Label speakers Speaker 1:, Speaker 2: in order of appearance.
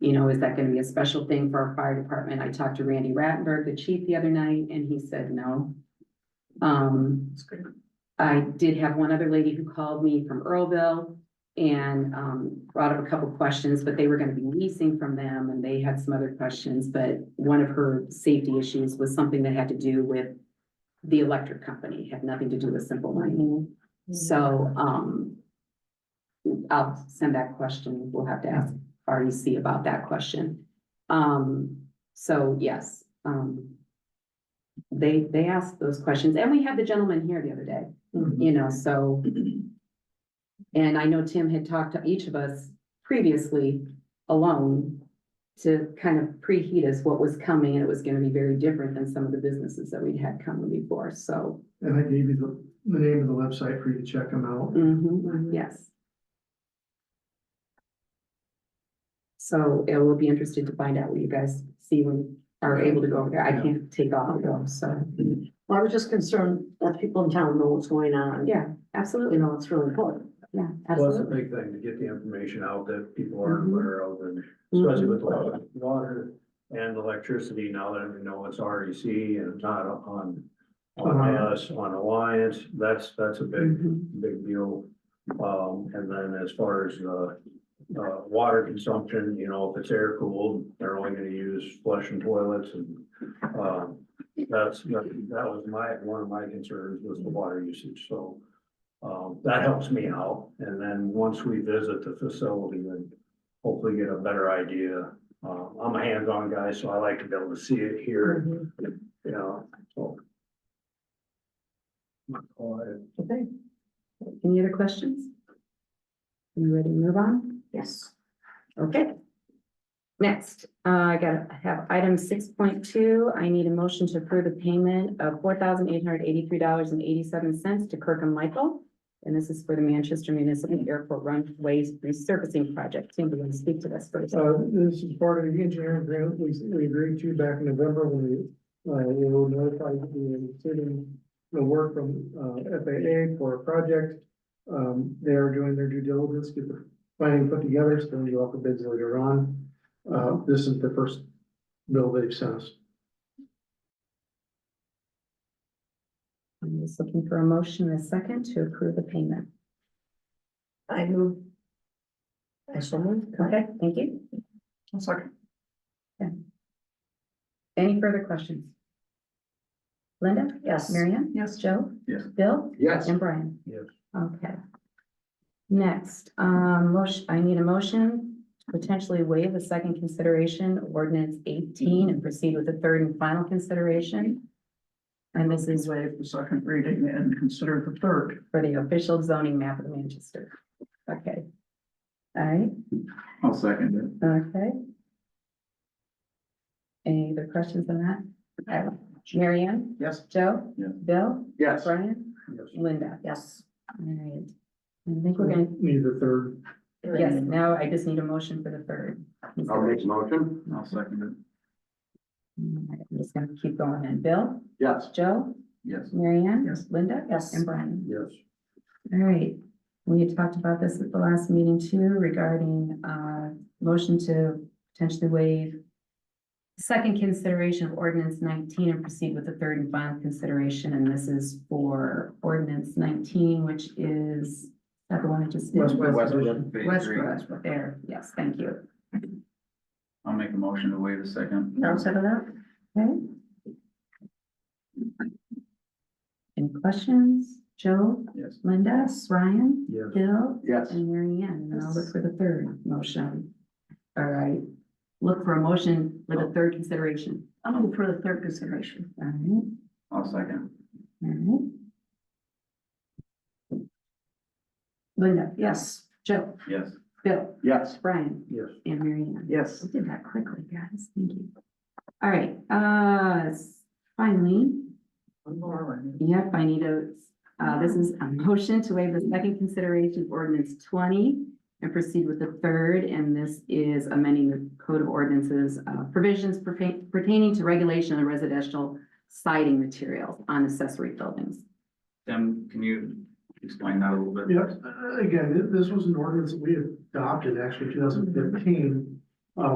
Speaker 1: You know, is that gonna be a special thing for our fire department? I talked to Randy Rattenberg, the chief, the other night, and he said no. Um,
Speaker 2: That's good.
Speaker 1: I did have one other lady who called me from Earlville and um brought up a couple questions, but they were gonna be leasing from them and they had some other questions, but one of her safety issues was something that had to do with the electric company, had nothing to do with simple mining. So um I'll send that question. We'll have to ask REC about that question. Um, so yes, um they they asked those questions and we had the gentleman here the other day
Speaker 2: Mhm.
Speaker 3: Mm-hmm.
Speaker 1: you know, so. And I know Tim had talked to each of us previously alone to kind of preheat us what was coming, and it was gonna be very different than some of the businesses that we'd had coming before, so.
Speaker 3: And I gave you the, the name of the website for you to check them out.
Speaker 1: mhm, yes. So it will be interested to find out what you guys see when are able to go over there. I can't take off though, so,
Speaker 2: Well, I was just concerned that people in town know what's going on.
Speaker 1: yeah,
Speaker 2: You
Speaker 1: absolutely,
Speaker 2: know, it's really important.
Speaker 1: yeah,
Speaker 4: Well, it's a
Speaker 1: absolutely.
Speaker 4: big thing to get the information out that people aren't
Speaker 1: Mhm.
Speaker 4: aware of, and especially with the water and electricity, now that we know it's REC and it's not on. On
Speaker 3: Alliance.
Speaker 4: us, on Alliance, that's, that's a big,
Speaker 1: Mhm,
Speaker 4: big deal. Um, and then as far as, uh, uh, water consumption, you know, if it's air cooled, they're only gonna use flushing toilets and, um, that's, that was my, one of my concerns was the water usage, so. Um, that helps me out, and then once we visit the facility and hopefully get a better idea. Uh, I'm a hands-on guy, so I like to be able to see it here,
Speaker 2: Mhm.
Speaker 4: you know, so. Oh, I-
Speaker 2: Okay,
Speaker 1: Any other questions? You ready to move on?
Speaker 2: yes.
Speaker 1: Okay. Next, uh, I got, I have item six point two, I need a motion to approve the payment of four thousand eight hundred eighty-three dollars and eighty-seven cents to Kirk and Michael. And this is for the Manchester Municipal Airport runways resurfacing project, Tim, do you want to speak to this first?
Speaker 3: Uh, this is part of the engineering grant we, we agreed to back in November when we, uh, we were notified that we were receiving the work from, uh, FAA for a project. Um, they are doing their due diligence, get the planning put together, so then you offer bids later on. Uh, this is the first bill they've sent us.
Speaker 1: I'm just looking for a motion and a second to approve the payment.
Speaker 2: I move. I shall move.
Speaker 1: Okay, thank you.
Speaker 2: One second.
Speaker 1: Any further questions? Linda?
Speaker 2: Yes.
Speaker 1: Marianne,
Speaker 2: Yes.
Speaker 1: Joe?
Speaker 4: Yes.
Speaker 1: Bill?
Speaker 3: Yes.
Speaker 1: And Brian?
Speaker 4: Yes.
Speaker 1: Okay. Next, um, motion, I need a motion to potentially waive the second consideration of ordinance eighteen and proceed with the third and final consideration. And this is
Speaker 5: waive the second reading and consider the third.
Speaker 1: for the official zoning map of Manchester. Okay. All right,
Speaker 5: I'll second
Speaker 1: okay. Any other questions on that? All right. Mary Ann?
Speaker 5: Yes.
Speaker 1: Joe?
Speaker 5: Yeah.
Speaker 1: Bill?
Speaker 5: Yes.
Speaker 1: Brian?
Speaker 4: yes.
Speaker 1: Linda?
Speaker 2: Yes.
Speaker 1: All right. I think we're gonna
Speaker 3: Need the third.
Speaker 1: Yes, now I just need a motion for the third.
Speaker 5: a motion. I'll second it.
Speaker 1: Alright, Mm, I'm just gonna keep going And Bill,
Speaker 5: Yes.
Speaker 1: Joe,
Speaker 5: Yes.
Speaker 1: Mary Ann?
Speaker 5: Yes.
Speaker 1: Linda?
Speaker 2: Yes.
Speaker 1: And Brian?
Speaker 4: Yes.
Speaker 1: All right, we had talked about this at the last meeting too regarding, uh, motion to potentially waive second consideration of ordinance nineteen and proceed with the third and final consideration, and this is for ordinance nineteen, which is, that the one I just did?
Speaker 3: Westwood.
Speaker 1: Westbrook, there, yes, thank you.
Speaker 5: I'll make a motion to waive the second.
Speaker 2: Now, second that?
Speaker 1: Okay. Any questions? Joe,
Speaker 5: Yes.
Speaker 1: Linda, Ryan,
Speaker 4: Yes.
Speaker 1: Bill,
Speaker 5: Yes.
Speaker 1: and Mary Ann, and I'll look for the third motion. All right, look for a motion for the third consideration.
Speaker 2: I'll move for the third consideration.
Speaker 1: All right,
Speaker 5: I'll second.
Speaker 1: all right. Linda,
Speaker 2: Yes.
Speaker 1: Joe,
Speaker 5: Yes.
Speaker 1: Bill,
Speaker 5: Yes.
Speaker 1: Brian,
Speaker 4: Yes.
Speaker 1: and Mary Ann.
Speaker 5: Yes.
Speaker 1: We did that quickly, guys, thank you. All right, uh, s- finally,
Speaker 5: One more. I mean.
Speaker 1: Yep, I need a, uh, this is a motion to waive the second consideration of ordinance twenty and proceed with the third, and this is amending the code of ordinances, uh, provisions pertain- pertaining to regulation of residential siding materials on accessory buildings.
Speaker 5: Tim, can you explain that a little bit?
Speaker 3: Yes, uh, again, th- this was an ordinance that we adopted actually two thousand fifteen.